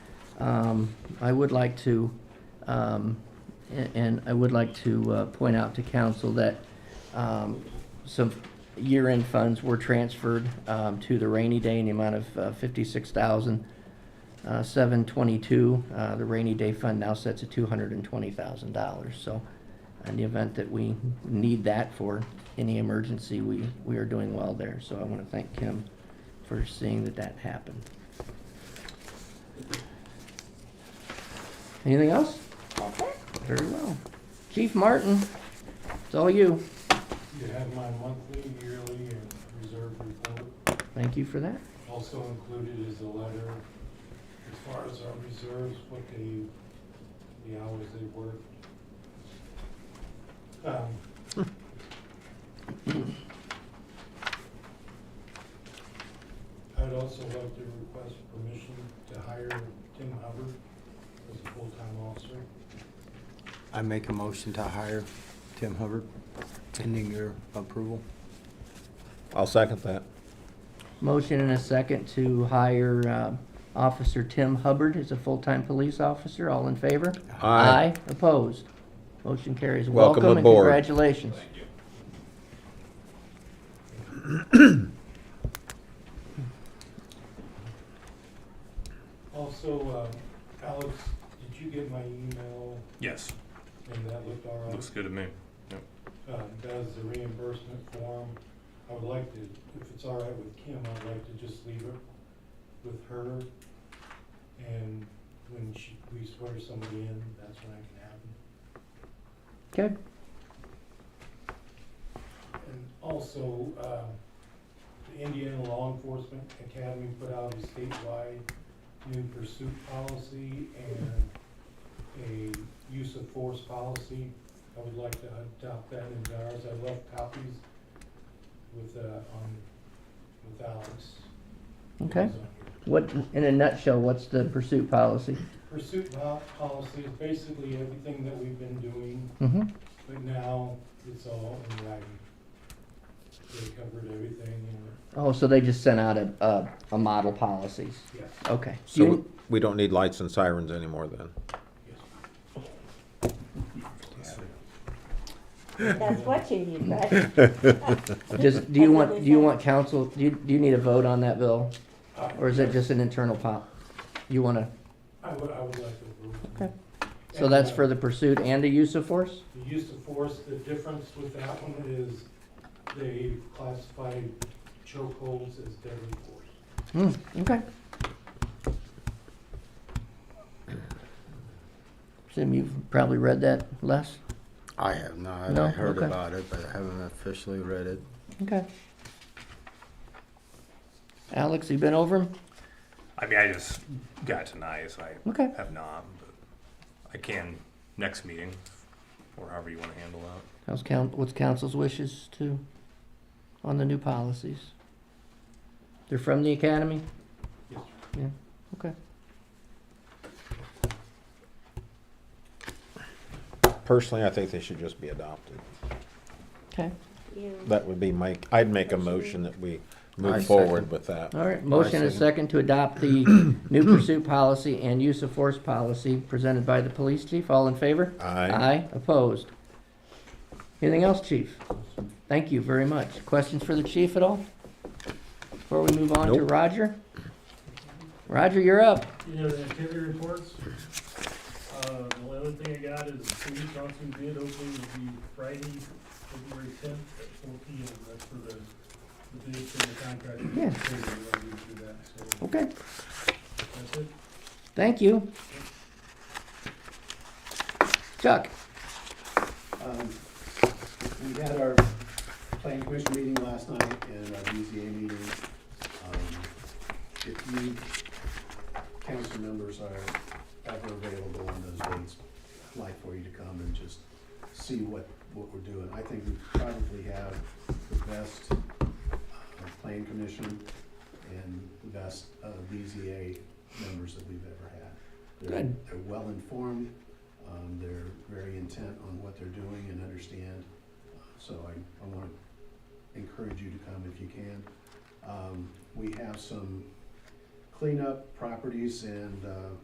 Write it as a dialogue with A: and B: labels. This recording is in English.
A: um, I would like to, um, a- and I would like to uh, point out to council that um, some year-end funds were transferred um, to the rainy day in the amount of uh, $56,722. Uh, The rainy day fund now sets at $220,000. So in the event that we need that for any emergency, we, we are doing well there. So I want to thank Kim for seeing that that happened. Anything else? Very well. Chief Martin, it's all you.
B: You have my monthly, yearly, and reserve report.
A: Thank you for that.
B: Also included is a letter as far as our reserves, what they, the hours they worked. Um, I'd also like to request permission to hire Tim Hubbard as a full-time officer.
C: I make a motion to hire Tim Hubbard, pending your approval.
D: I'll second that.
A: Motion and a second to hire um, Officer Tim Hubbard as a full-time police officer. All in favor?
D: Aye.
A: Opposed? Motion carries.
D: Welcome
A: and
D: aboard.
A: Congratulations.
B: Also, uh, Alex, did you get my email
E: Yes,
B: and that looked all right?
E: looks good to me.
B: um, does the reimbursement form. I would like to, if it's all right with Kim, I'd like to just leave it with her. And when she, we swear somebody in, that's when I can have them.
A: Okay.
B: And also, uh, the Indiana Law Enforcement Academy put out a statewide new pursuit policy and a use of force policy. I would like to adopt that into ours. I left copies with, uh, on, with Alex.
A: Okay. What, in a nutshell, what's the pursuit policy?
B: Pursuit po- policy is basically everything that we've been doing,
A: Mm-hmm.
B: but now it's all in writing. They covered everything and,
A: Oh, so they just sent out a, a, a model policies.
B: yes,
A: Okay.
D: So we-
A: You-
D: we don't need lights and sirens anymore then?
B: yes.
F: That's what you need, right?
A: Just, do you want, do you want council, do you, do you need a vote on that bill?
B: Uh,
A: Or is it just an internal pop? You wanna,
B: I would, I would like to approve.
A: Okay. so that's for the pursuit and the use of force?
B: The use of force, the difference with that one is they classified chokeholds as deadly force.
A: Hmm, okay. Jim, you've probably read that, Les?
C: I have not.
A: No?
C: I heard
A: Okay.
C: about it, but I haven't officially read it.
A: Okay. Alex, you been over 'em?
E: I mean, I just got tonight, so I
A: Okay,
E: have not, but I can next meeting, or however you wanna handle that.
A: how's coun, what's council's wishes to, on the new policies? They're from the academy?
B: Yes,
A: Yeah, okay.
D: Personally, I think they should just be adopted.
A: Okay,
F: You-
D: That would be my, I'd make a motion that we
C: I
D: move
C: second.
D: forward with that.
A: all right, motion and
C: second.
A: second to adopt the new pursuit policy and use of force policy presented by the police chief, all in favor?
D: Aye.
A: Aye, opposed. Anything else, chief? Thank you very much. Questions for the chief at all? Before we move on to
D: Nope.
A: Roger? Roger, you're up.
G: You know, the activity reports, uh, the only other thing I got is the city council bid opening will be Friday, February tenth at four P M. That's for the, the bid for the contract.
A: Yeah.
G: We're gonna do that, so
A: Okay,
G: that's it.
A: thank you. Chuck?
H: Um, We had our planning commission meeting last night and our BZA meeting. Um, If you council members are ever available on those dates, I'd like for you to come and just see what, what we're doing. I think we probably have the best uh, plan commission and the best uh, BZA members that we've ever had. They're-
A: Good.
H: They're well-informed, um, they're very intent on what they're doing and understand. So I, I wanna encourage you to come if you can. Um, we have some cleanup properties and, uh,